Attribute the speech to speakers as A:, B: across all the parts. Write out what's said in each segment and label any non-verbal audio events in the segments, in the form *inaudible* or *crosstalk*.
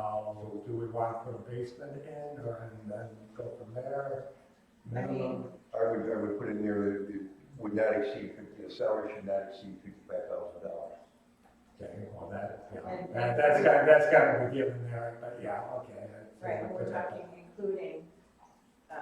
A: So do we want to put a basement in or and then go from there?
B: I
A: Minimum,
B: mean,
C: I would, I would put in there that it would not exceed, fifty. the salary should not exceed fifty-five thousand dollars.
A: okay, well, that, yeah,
B: And-
A: that- that's got, that's got to be given there, but yeah, okay. that's-
B: right, but we're talking including, uh,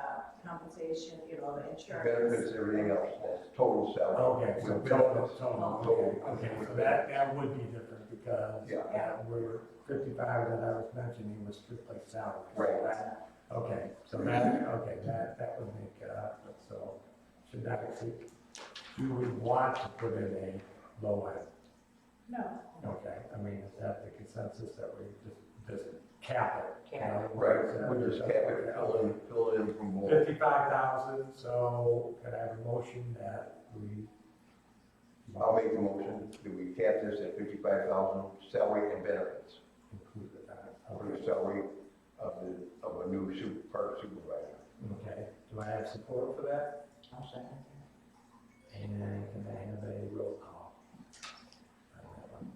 B: compensation, you know, insurance.
C: Benefits, everything else, that's total salary.
A: Okay, so
C: With
A: total,
C: benefits.
A: total, okay, okay, so that, that would be different because
C: Yeah.
A: uh, we're fifty-five that I was mentioning was strictly salary. so
C: Right.
A: that- Okay, so that, okay, that, that would make it up, but so should that exceed? You would want to put in a low end,
B: No,
A: okay, I mean, is that the consensus that we just, just cap it?
B: Cap it.
C: Right, we just have it fill in, fill it in from below.
A: Fifty-five thousand, so could I have a motion that we?
C: I'll make the motion, that we cap this at fifty-five thousand, salary and benefits,
A: Include the uh,
C: for the salary of the, of a new super, park supervisor.
A: Okay, do I have support for that? And can I have a roll call? on that one?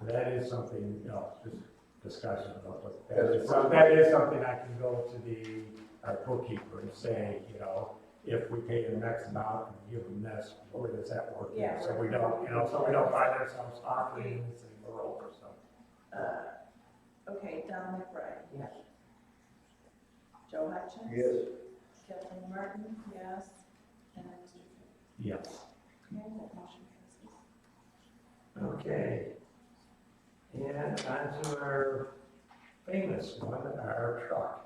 A: So That is something, you know, just discussion about what, that is, some- that is something I can go to the, our bookkeeper and say, you know, if we pay the next amount and give them this, where does that work?
B: Yeah.
A: So we don't, you know, so we don't find ourselves operating this and we're over, so.
B: uh, okay, Don McBride.
D: Yes.
B: Joe Hutchins.
C: Yes,
B: Kathleen Martin, yes. And Mr. Fitzpatrick.
A: Yes.
B: Okay, that motion passes.
A: Okay. And on to our famous one, our truck.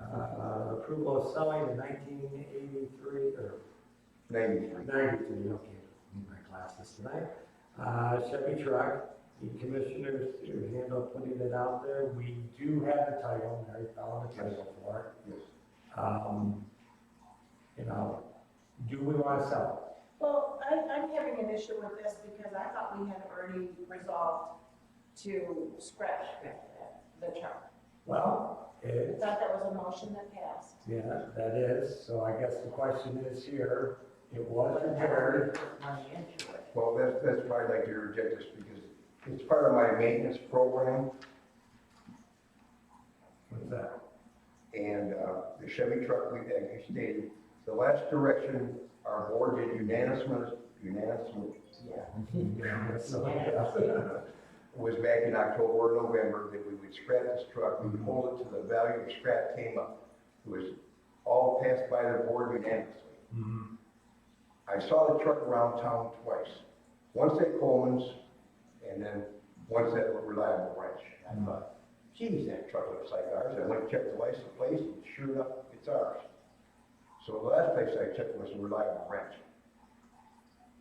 A: Uh, Approval of selling in nineteen eighty-three or
C: ninety-three.
A: ninety-three, okay, need my glasses tonight. Uh, Chevy truck, the commissioners to handle putting it out there. We do have the title, Mary found the title for
C: Yes.
A: it. Um, You know, do we want to sell
B: Well, I, I'm having an issue with this because I thought we had already resolved to scratch the truck.
A: it? Well,
B: I
A: it,
B: thought that was a motion that passed.
A: Yeah, that is, so I guess the question is here, it was repaired,
D: Money into it.
C: Well, that's, that's why I'd like to reject this, because it's part of my maintenance program,
A: what's that?
C: and, uh, the Chevy truck, we, as you stated, the last direction, our board did unanimous, unanimous,
D: Yeah.
A: *laughs*
C: Mm-hmm.
A: Yeah, so, yeah.
C: uh, was back in October or November, that we would scrap this truck, we would hold it to the value of scrap came up. It was all passed by the board unanimously.
A: Mhm.
C: I saw the truck around town twice. Once at Coleman's and then once at Reliable Ranch. I thought, geez, that truck looks like ours. I went and checked the license plate and sure enough, it's ours. So the last place I checked was Reliable Ranch.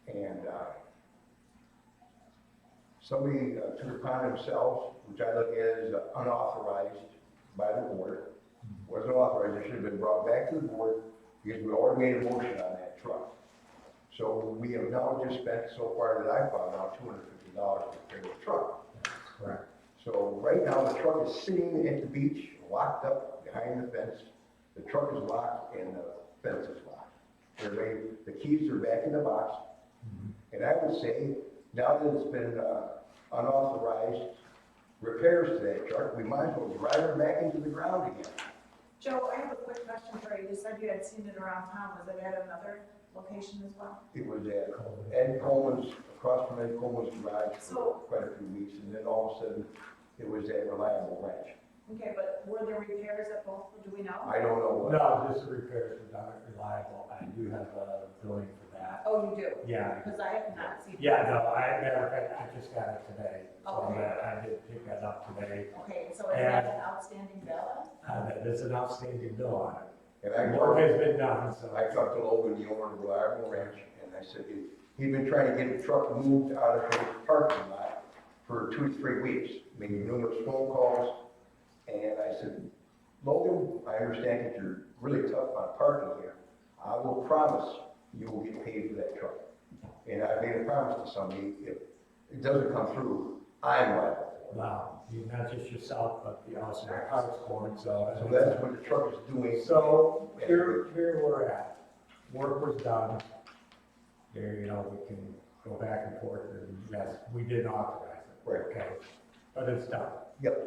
C: And, uh, somebody uh, took it upon themselves, which I look at as unauthorized by the board. Wasn't authorized, it should have been brought back to the board because we already made a motion on that truck. So we have now just spent so far that I found out two hundred fifty dollars to repair the truck.
A: Correct.
C: So right now, the truck is sitting at the beach, locked up behind the fence. The truck is locked and the fence is locked. They're ready, the keys are back in the box.
A: Mm-hmm.
C: And I would say, now that it's been uh, unauthorized repairs to that truck, we might as well drive it back into the ground again.
B: Joe, I have a quick question for you. You said you had seen it around town. Was it at another location as well?
C: It was at Ed Coleman's, across from Ed Coleman's garage
B: So-
C: for quite a few weeks, and then all of a sudden, it was at Reliable Ranch.
B: Okay, but were there repairs at both, do we know?
C: I don't know what,
A: No, just the repairs were not reliable, I do have a billing for that.
B: Oh, you do?
A: Yeah,
B: Because I have not seen. it.
A: yeah, no, I, matter of fact, I just got it today, so
B: Okay.
A: that I did pick that up today.
B: Okay, so is that an outstanding bill?
A: Uh, that- There's an outstanding bill on it.
C: and I
A: Work
C: talked,
A: has been done, so.
C: I talked to Logan, the owner of Reliable Ranch, and I said, he- he'd been trying to get the truck moved out of the parking lot for two, three weeks, making numerous phone calls, and I said, Logan, I understand that you're really tough on parking here, I will promise you will get paid for that truck. And I made a promise to somebody, if it doesn't come through, I'm liable.
A: Wow, you- not just yourself, but the also our house board, so.
C: So that's what the truck is doing.
A: So here, here we're at, work was done. There, you know, we can go back and forth, and yes, we did authorize it.
C: Right.
A: Okay, but it's done.
C: Yep.